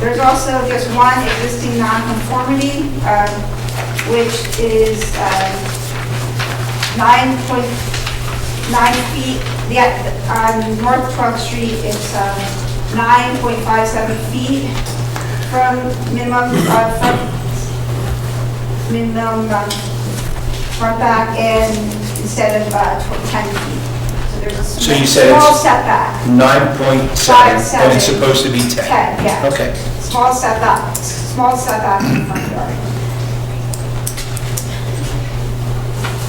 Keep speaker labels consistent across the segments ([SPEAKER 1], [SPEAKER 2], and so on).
[SPEAKER 1] There's also just one existing nonconformity, um, which is um, 9.9 feet, the, on North 12th Street, it's um, 9.57 feet from minimum, uh, from minimum um, front back and instead of uh, tw- 10 feet. So there's a
[SPEAKER 2] So you said it's-
[SPEAKER 1] small setback.
[SPEAKER 2] Nine point seven,
[SPEAKER 1] Five,
[SPEAKER 2] but it's
[SPEAKER 1] seven.
[SPEAKER 2] supposed to be ten?
[SPEAKER 1] 10, yeah.
[SPEAKER 2] Okay.
[SPEAKER 1] Small setback, small setback in the front yard.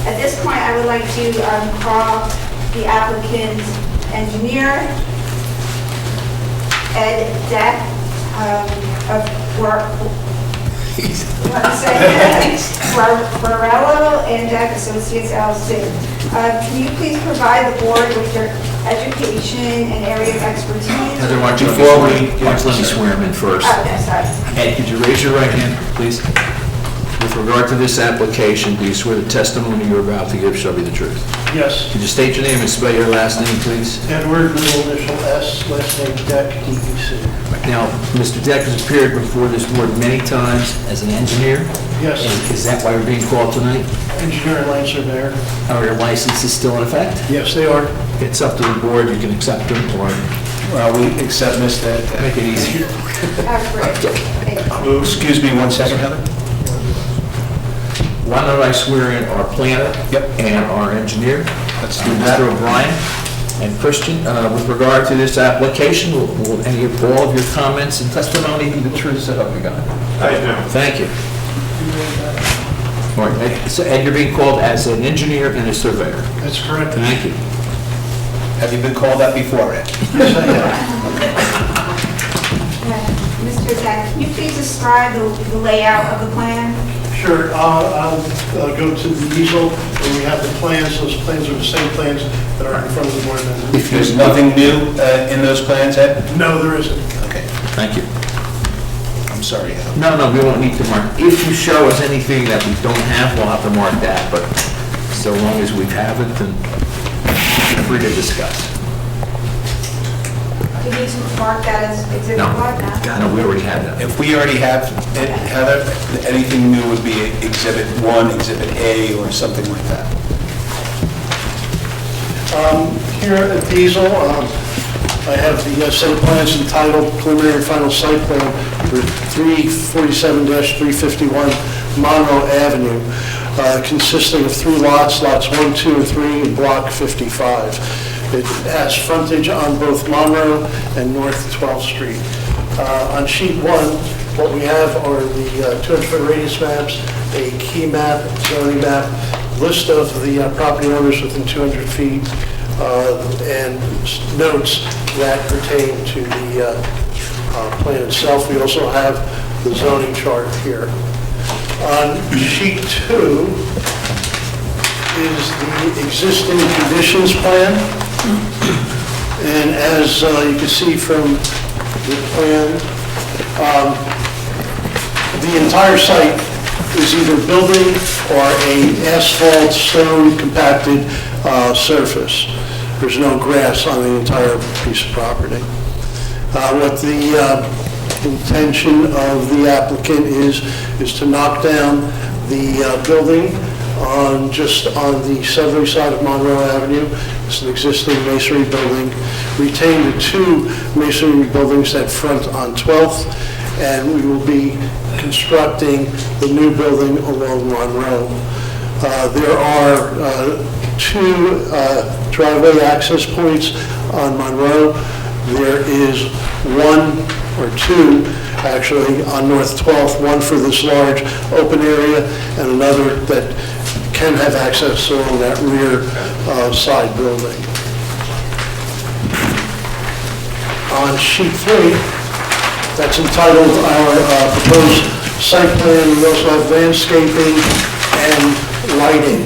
[SPEAKER 1] At this point, I would like to um, call the applicant's engineer, Ed Deck, um, of Bar- what's that? Bar- Barello and Deck Associates LLC. Uh, Can you please provide the board with your education and area of expertise?
[SPEAKER 3] Heather, why don't you-
[SPEAKER 2] Before
[SPEAKER 3] before
[SPEAKER 2] we-
[SPEAKER 3] we, why don't you let me swear him in first?
[SPEAKER 1] Oh, yes, sorry.
[SPEAKER 3] Ed, could you raise your right hand, please? With regard to this application, do you swear the testimony you're about to give shall be the truth?
[SPEAKER 4] Yes,
[SPEAKER 3] Could you state your name and spell your last name, please?
[SPEAKER 4] Edward, middle initial S, last name E Deck, DEC.
[SPEAKER 3] Now, Mr. Deck has appeared before this board many times as an engineer.
[SPEAKER 4] Yes.
[SPEAKER 3] And Is that why you're being called tonight?
[SPEAKER 4] Engineer and land surveyor.
[SPEAKER 3] Are your licenses still in effect?
[SPEAKER 4] Yes, they are.
[SPEAKER 3] It's up to the board, you can accept them or
[SPEAKER 2] Well, we accept Mr.
[SPEAKER 3] make it easier.
[SPEAKER 1] Uh, great. Thank you.
[SPEAKER 2] Well, uh, Excuse me one second, Heather.
[SPEAKER 3] Why don't I swear in our planner?
[SPEAKER 2] Yep.
[SPEAKER 3] And our engineer?
[SPEAKER 2] Let's
[SPEAKER 3] uh,
[SPEAKER 2] do that.
[SPEAKER 3] Mr. O'Brien and Christian, uh, with regard to this application, will- will any of, all of your comments and testimony be the truth, so help you God? I do. Thank you. All right, Ed- so Ed, you're being called as an engineer and a surveyor.
[SPEAKER 4] That's correct.
[SPEAKER 3] Thank you.
[SPEAKER 2] Have you been called that before, Ed?
[SPEAKER 4] Yes, I am.
[SPEAKER 1] Mr. Zach, can you please describe the the layout of the plan?
[SPEAKER 4] Sure, uh, I'll uh, go to the easel, and we have the plans, those plans are the same plans that are in front of the board members.
[SPEAKER 2] There's nothing new uh, in those plans, Ed?
[SPEAKER 4] No, there isn't.
[SPEAKER 2] Okay,
[SPEAKER 3] Thank you.
[SPEAKER 2] I'm sorry, Heather.
[SPEAKER 3] No, no, we won't need to mark. If you show us anything that we don't have, we'll have to mark that, but so long as we have it, then feel free to discuss.
[SPEAKER 1] Do you need to mark that as exhibit
[SPEAKER 3] No,
[SPEAKER 1] one?
[SPEAKER 3] no, we already had that.
[SPEAKER 2] If we already have, it, Heather, anything new would be Exhibit 1, Exhibit A, or something like that.
[SPEAKER 4] Um, Here at the easel, um, I have the uh, set of plans entitled preliminary and final site plan for 347-351 Monroe Avenue, uh, consisting of three lots, lots 1, 2, and 3, in Block 55. It has frontage on both Monroe and North 12th Street. Uh, On sheet one, what we have are the uh, 200-foot radius maps, a key map, zoning map, list of the uh, property owners within 200 feet uh, and s- notes that pertain to the uh, uh, plan itself. We also have the zoning chart here. On sheet two is the existing conditions plan. And as uh, you can see from the plan, the entire site is either building or a asphalt, stone compacted uh, surface. There's no grass on the entire piece of property. Uh, What the uh, intention of the applicant is, is to knock down the uh, building on, just on the southerly side of Monroe Avenue. It's an existing masonry building. Retain the two masonry buildings that front on 12th and we will be constructing the new building along Monroe. Uh, There are uh, two uh, driveway access points on Monroe. There is one or two, actually, on North 12th, one for this large open area and another that can have access along that rear uh, side building. On sheet three, that's entitled our uh, proposed site plan, we also have landscaping and lighting.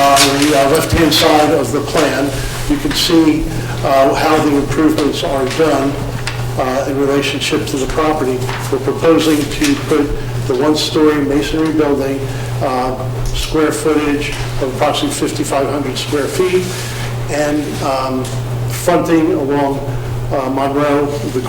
[SPEAKER 4] On the uh, left-hand side of the plan, you can see uh, how the improvements are done uh, in relationship to the property. We're proposing to put the one-story masonry building, uh, square footage of approximately 5,500 square feet, and um, fronting along uh, Monroe, the